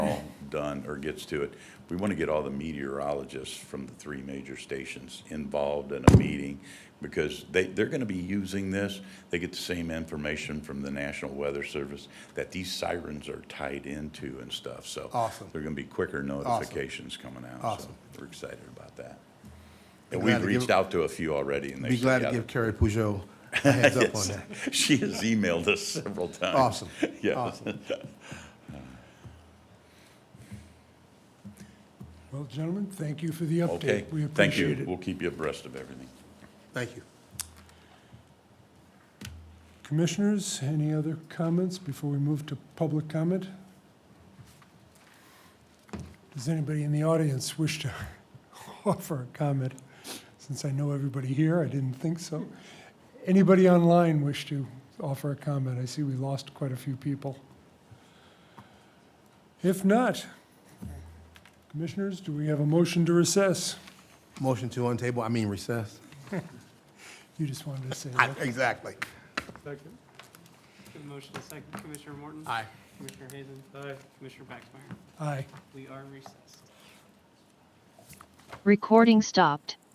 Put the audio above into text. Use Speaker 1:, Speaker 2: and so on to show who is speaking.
Speaker 1: done or gets to it, we want to get all the meteorologists from the three major stations involved in a meeting because they, they're going to be using this. They get the same information from the National Weather Service that these sirens are tied into and stuff. So
Speaker 2: Awesome.
Speaker 1: there are going to be quicker notifications coming out.
Speaker 2: Awesome.
Speaker 1: So we're excited about that.
Speaker 2: Be
Speaker 1: And
Speaker 2: glad
Speaker 1: we've
Speaker 2: to give-
Speaker 1: reached out to a few already and they
Speaker 2: Be glad
Speaker 1: said,
Speaker 2: to
Speaker 1: yeah.
Speaker 2: give Carrie Pujol a heads up on that.
Speaker 1: Yes. She has emailed us several times.
Speaker 2: Awesome.
Speaker 1: Yes.
Speaker 2: Awesome.
Speaker 3: Well, gentlemen, thank you for the
Speaker 1: Okay.
Speaker 3: update. We
Speaker 1: Thank you.
Speaker 3: appreciate it.
Speaker 1: We'll keep you abreast of everything.
Speaker 2: Thank you.
Speaker 3: Commissioners, any other comments before we move to public comment? Does anybody in the audience wish to offer a comment? Since I know everybody here, I didn't think so. Anybody online wish to offer a comment? I see we lost quite a few people. If not, commissioners, do we have a motion to recess?
Speaker 2: Motion to untable, I mean recess.
Speaker 3: You just wanted to say
Speaker 2: I-
Speaker 3: that.
Speaker 2: Exactly.
Speaker 4: Second.
Speaker 5: Good motion, second. Commissioner Morton?
Speaker 2: Aye.
Speaker 5: Commissioner Hazen? Commissioner Baxmeyer?
Speaker 3: Aye.
Speaker 5: We are recessed.
Speaker 6: Recording stopped.